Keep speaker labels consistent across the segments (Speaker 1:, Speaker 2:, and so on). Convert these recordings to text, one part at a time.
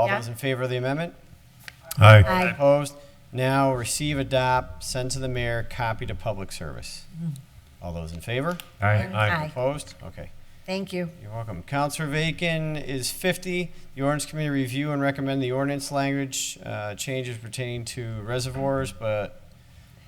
Speaker 1: All
Speaker 2: Yeah.
Speaker 1: those in favor of the amendment?
Speaker 3: Aye.
Speaker 2: Aye.
Speaker 1: Opposed? Now receive, adopt, send to the mayor, copy to public service. All those in favor?
Speaker 2: Mm-hmm. Aye.
Speaker 1: Opposed? Okay.
Speaker 2: Thank you.
Speaker 1: You're welcome. Counselor Vacan is 50. The ordinance committee review and recommend the ordinance language uh, changes pertaining to reservoirs, but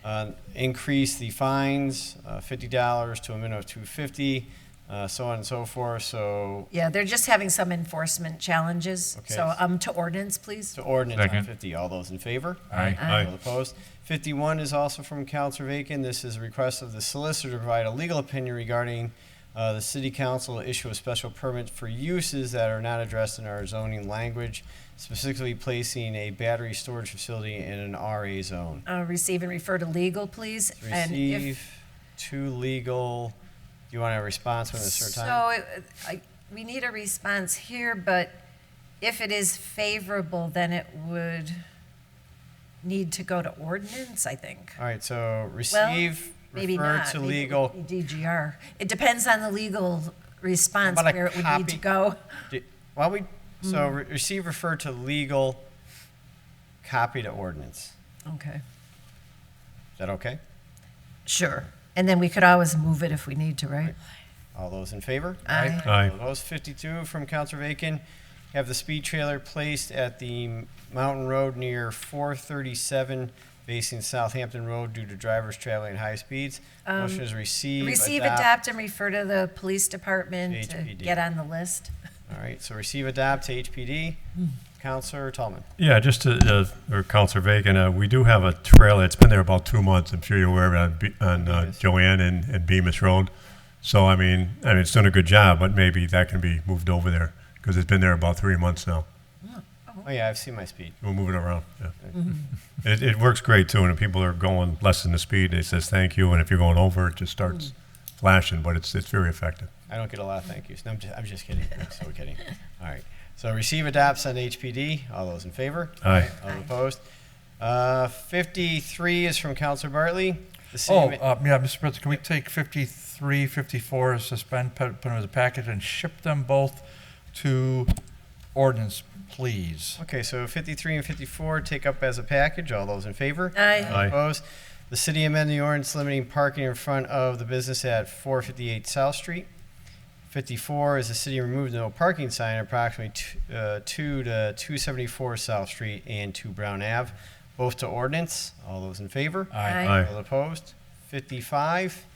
Speaker 1: uh, increase the fines, uh, $50 to a minimum of 250, uh, so on and so forth. So
Speaker 2: Yeah, they're just having some enforcement challenges.
Speaker 1: Okay.
Speaker 2: So, um, to ordinance, please.
Speaker 1: to ordinance on
Speaker 3: Second.
Speaker 1: 50. All those in favor?
Speaker 3: Aye.
Speaker 1: All opposed. 51 is also from Counselor Vacan. This is a request of the solicitor to provide a legal opinion regarding uh, the city council to issue a special permit for uses that are not addressed in our zoning language, specifically placing a battery storage facility in an RA zone.
Speaker 2: Uh, receive and refer to legal, please. And if
Speaker 1: Receive to legal, do you want a response within a certain time?
Speaker 2: So, it- I, we need a response here, but if it is favorable, then it would need to go to ordinance, I think.
Speaker 1: All right, so
Speaker 2: Well,
Speaker 1: receive,
Speaker 2: maybe
Speaker 1: refer
Speaker 2: not.
Speaker 1: to
Speaker 2: Maybe it
Speaker 1: legal.
Speaker 2: would be DGR. It depends on the legal response
Speaker 1: about a
Speaker 2: where it would need
Speaker 1: copy?
Speaker 2: to go.
Speaker 1: Do- Why don't we, so
Speaker 2: Hmm.
Speaker 1: re- receive, refer to legal, copy to ordinance.
Speaker 2: Okay.
Speaker 1: Is that okay?
Speaker 2: Sure. And then we could always move it if we need to, right?
Speaker 1: All those in favor?
Speaker 2: Aye.
Speaker 3: Aye.
Speaker 1: All those 52 from Counselor Vacan. Have the speed trailer placed at the Mountain Road near 437 facing Southampton Road due to drivers traveling at high speeds. Motion is receive,
Speaker 2: Um, Receive,
Speaker 1: adopt.
Speaker 2: adopt, and refer to the police department to
Speaker 1: HPD.
Speaker 2: get on the list.
Speaker 1: All right, so receive, adopt to HPD. Counselor Tallman.
Speaker 3: Yeah, just to, uh, or Counselor Vacan, uh, we do have a trailer. It's been there about two months. I'm sure you're aware of it on, Be- on uh,
Speaker 1: Yes.
Speaker 3: Joanne and, and Bemis Road. So, I mean, I mean, it's done a good job, but maybe that can be moved over there because it's been there about three months now.
Speaker 1: Oh, yeah, I've seen my speed.
Speaker 3: We'll move it around. Yeah. It, it works great too. And if people are going less than the speed, it says thank you. And if you're going over, it just starts flashing, but it's, it's very effective.
Speaker 1: I don't get a lot of thank yous. No, I'm just, I'm just kidding. I'm so kidding. All right. So receive, adopt, send to HPD. All those in favor?
Speaker 3: Aye.
Speaker 1: All opposed? Uh, 53 is from Counselor Bartley. The city
Speaker 4: Oh,
Speaker 1: ma-
Speaker 4: uh, yeah, Mr. President, can we take 53, 54, suspend, put put them as a package, and ship them both to ordinance, please?
Speaker 1: Okay, so 53 and 54 take up as a package. All those in favor?
Speaker 2: Aye.
Speaker 3: Aye.
Speaker 1: Opposed? The city amended the ordinance limiting parking in front of the business at 458 South Street. 54 is the city removed no parking sign approximately t- uh, 2 to 274 South Street and 2 Brown Ave, both to ordinance. All those in favor?
Speaker 4: Aye.
Speaker 3: Aye.
Speaker 1: All opposed? 55?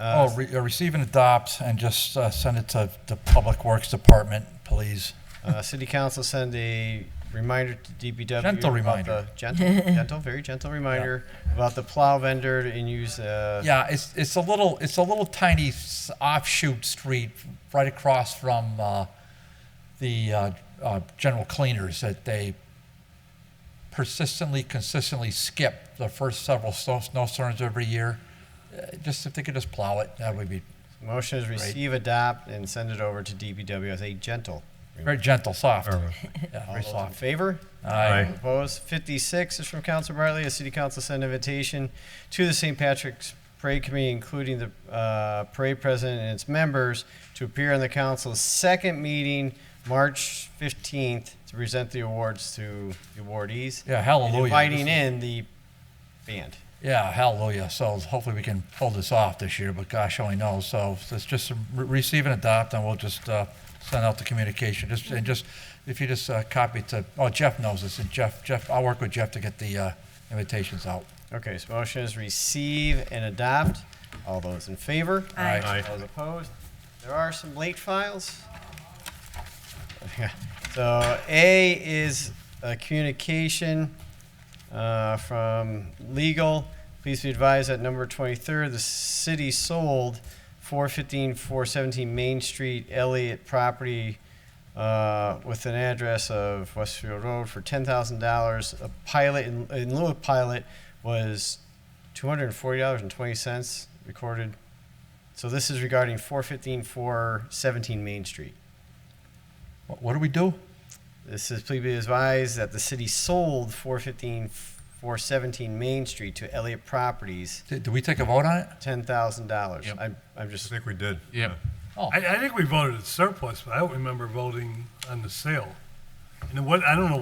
Speaker 4: Oh, re- uh, receive and adopt, and just uh, send it to the Public Works Department, please.
Speaker 1: Uh, City Council send a reminder to DPW.
Speaker 4: Gentle
Speaker 1: about the-
Speaker 4: reminder.
Speaker 1: Gentle, gentle, very gentle reminder about the plow vendor and use, uh,
Speaker 4: Yeah, it's, it's a little, it's a little tiny s- offshoot street right across from uh, the uh, uh, general cleaners that they persistently, consistently skip the first several snow- snowstorms every year. Uh, Just if they could just plow it, that would be
Speaker 1: motion is receive, adopt, and send it over to DPW as a gentle.
Speaker 4: very gentle, soft.
Speaker 3: Or-
Speaker 4: Yeah,
Speaker 1: All
Speaker 4: very
Speaker 1: those in
Speaker 4: soft.
Speaker 1: favor?
Speaker 4: Aye.
Speaker 1: Opposed? Fifty-six is from Council Bartley, a city council send invitation to the St. Patrick's Parade Committee, including the uh, parade president and its members, to appear on the council's second meeting, March fifteenth, to present the awards to the awardees.
Speaker 4: Yeah,
Speaker 1: and
Speaker 4: hallelujah.
Speaker 1: Inviting
Speaker 4: This is-
Speaker 1: in the band.
Speaker 4: Yeah, hallelujah. So hopefully we can pull this off this year, but gosh only knows. So let's just re- receive and adopt, and we'll just uh, send out the communication. Just and just if you just uh, copy to oh Jeff knows this, and Jeff Jeff I'll work with Jeff to get the uh, invitations out.
Speaker 1: Okay, so motion is receive and adopt. All those in favor?
Speaker 2: Aye.
Speaker 3: Aye.
Speaker 1: All those opposed? There are some late files. Yeah. So A is a communication uh, from legal. Please be advised that number 23, the city sold 415, 417 Main Street Elliott property uh, with an address of Westfield Road for $10,000. A pilot, in in lieu of pilot, was $240.20 recorded. So this is regarding 415, 417 Main Street.
Speaker 4: What, what do we do?
Speaker 1: This is please be advised that the city sold 415, 417 Main Street to Elliott Properties,
Speaker 4: Did, do we take a vote on it?
Speaker 1: $10,000.
Speaker 5: Yep.
Speaker 1: I'm, I'm
Speaker 3: I
Speaker 1: just,
Speaker 3: think we did.
Speaker 5: Yeah.
Speaker 4: Oh,
Speaker 6: I, I think we voted surplus, but I don't remember voting on the sale. And what, I don't know